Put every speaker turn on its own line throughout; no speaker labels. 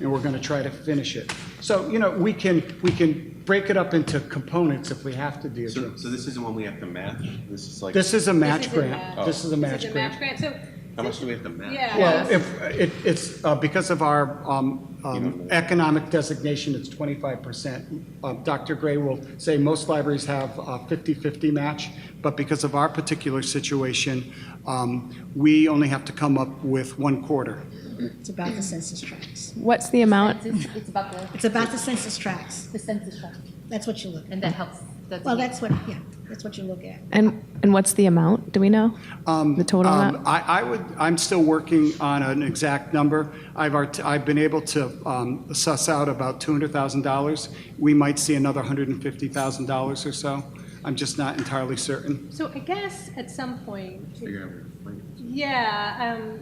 and we're going to try to finish it. So, you know, we can, we can break it up into components if we have to, Deirdre.
So, so this isn't one we have to match? This is like,
This is a
This
match
is a
grant.
match.
This is a
This
match
is a match
grant.
grant, so.
how much do we have to match?
Yeah.
Well, if, it, it's, uh, because of our, um, um, economic designation, it's twenty-five percent. Uh, Dr. Gray will say most libraries have a 50-50 match, but because of our particular situation, um, we only have to come up with one quarter.
It's about the census tracts.
What's the amount?
It's, it's about the,
It's about the census tracts.
the census tract,
That's what you look at.
and that helps. That's
Well, that's what, yeah, that's what you look at.
And, and what's the amount? Do we know? The total
Um,
amount?
I, I would, I'm still working on an exact number. I've, art- I've been able to um, suss out about $200,000. We might see another $150,000 or so. I'm just not entirely certain.
So I guess at some point,
Figure out where to find it.
yeah, um,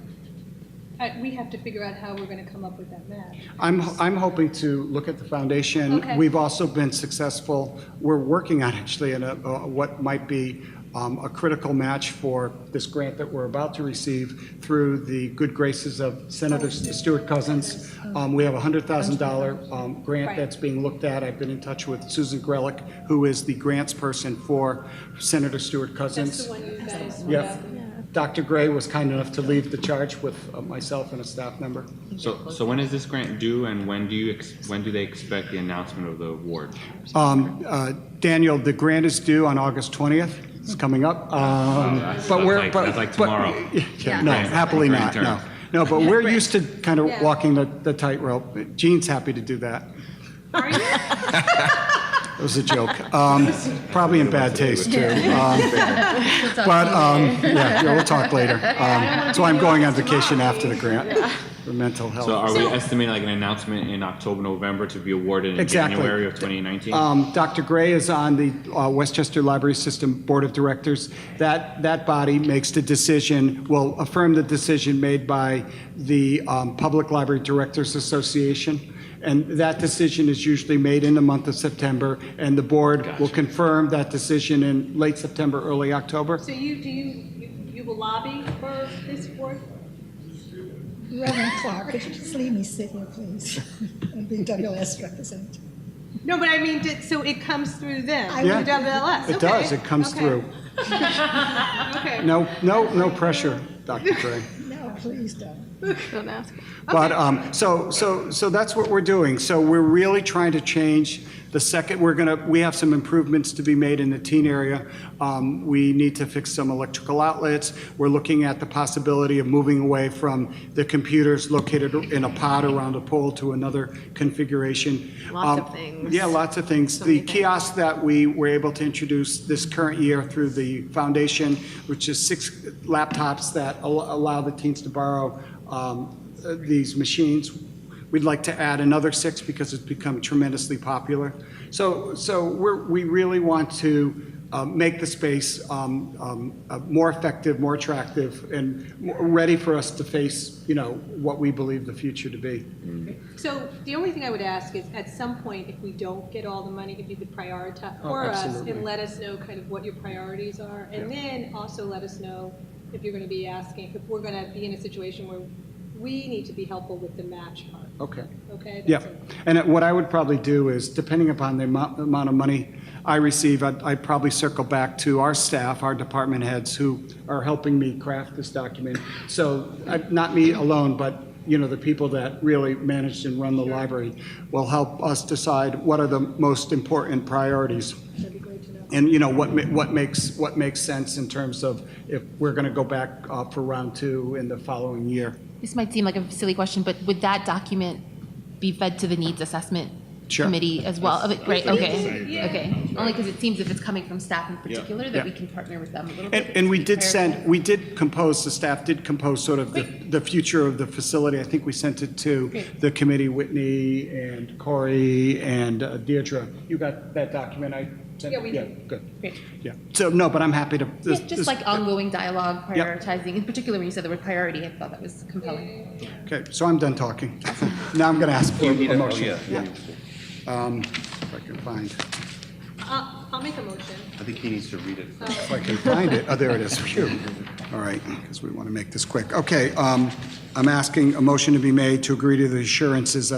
I, we have to figure out how we're gonna come up with that match.
I'm, I'm hoping to look at the foundation.
Okay.
We've also been successful, we're working on actually in a, uh, what might be um, a critical match for this grant that we're about to receive through the good graces of Senator Stuart Cousins. Um, We have a $100,000 um, grant
Oh. Right.
that's being looked at. I've been in touch with Susan Grelick, who is the grants person for Senator Stuart Cousins.
That's the one you guys.
Yes. Dr. Gray was kind enough to leave the charge with uh, myself and a staff member.
So, so when is this grant due and when do you, ex- when do they expect the announcement of the award?
Um, uh, Daniel, the grant is due on August 20th. It's coming up. Um,
Oh, that's
But we're,
like-
but.
that's like
but-
tomorrow.
Yeah, No,
Grant-
happily not,
grant
no.
term.
No, but we're used to kind of
Yeah.
walking the the tightrope. Gene's happy to do that.
Are you?
It was a joke. Um, Probably in bad taste, too. Um, But, um, yeah, yeah, we'll talk later. Um, That's why I'm going on vacation after the grant for mental health.
So are we estimating like an announcement in October, November to be awarded in
Exactly.
January of 2019?
Um, Dr. Gray is on the uh, Westchester Library System Board of Directors. That, that body makes the decision, will affirm the decision made by the um, Public Library Directors Association. And that decision is usually made in the month of September, and the board will confirm that decision in late September, early October.
So you, do you, you, you will lobby for this board?
Reverend Clark, could you just leave me sit here, please? And be WS representative.
No, but I mean, did- so it comes through them,
I
through
would-
WLS, okay.
It does, it comes
okay,
through.
Okay.
No, no, no pressure, Dr. Gray.
No, please don't.
Don't ask.
But, um, so, so, so that's what we're doing. So we're really trying to change the second, we're gonna, we have some improvements to be made in the teen area. Um, we need to fix some electrical outlets. We're looking at the possibility of moving away from the computers located in a pod around a pole to another configuration.
Lots of
Um,
things.
Yeah, lots of things. The kiosks that we were able to introduce this current year through the foundation, which is six laptops that al- allow the teens to borrow um, uh, these machines. We'd like to add another six because it's become tremendously popular. So, so we're, we really want to uh, make the space um, um, uh, more effective, more attractive, and more ready for us to face, you know, what we believe the future to be.
So the only thing I would ask is, at some point, if we don't get all the money, if you could prioritize
Oh,
for us
absolutely.
and let us know kind of what your priorities are, and then also let us know if you're going to be asking, if we're going to be in a situation where we need to be helpful with the match part,
Okay.
okay?
Yeah,
That's it.
and what I would probably do is, depending upon the amount, the amount of money I receive, I'd, I'd probably circle back to our staff, our department heads who are helping me craft this document. So, I- not me alone, but, you know, the people that really manage and run the library will help us decide what are the most important priorities. And, you know, what, ma- what makes, what makes sense in terms of if we're gonna go back uh, for round two in the following year.
This might seem like a silly question, but would that document be fed to the needs assessment
Sure.
committee as well? Of it- Right, okay,
Yeah.
okay. Only because it seems if it's coming from staff in particular, that
Yeah.
we can partner with them a little
And,
bit.
and we
to
did
prepare
send, we did compose, the staff did compose sort of the, the future of the facility. I think we sent it to the committee, Whitney and Corey and uh, Deirdre. You got that document I sent?
Yeah, we did.
Good,
Great.
yeah. So, no, but I'm happy to.
Yeah,
this- uh,
just
this-
like ongoing dialogue,
Yep.
prioritizing, in particular when you said the word priority, I thought that was compelling.
Okay, so I'm done talking. Now I'm going to ask for
You
a
need a- oh,
motion.
yeah.
Um, If I can find,
I'll, Uh, I'll make a motion.
I think he needs to read it. first.
if I can find it, oh, there it is, phew. All right, because we want to make this quick. Okay, um, I'm asking a motion to be made to agree to the assurances that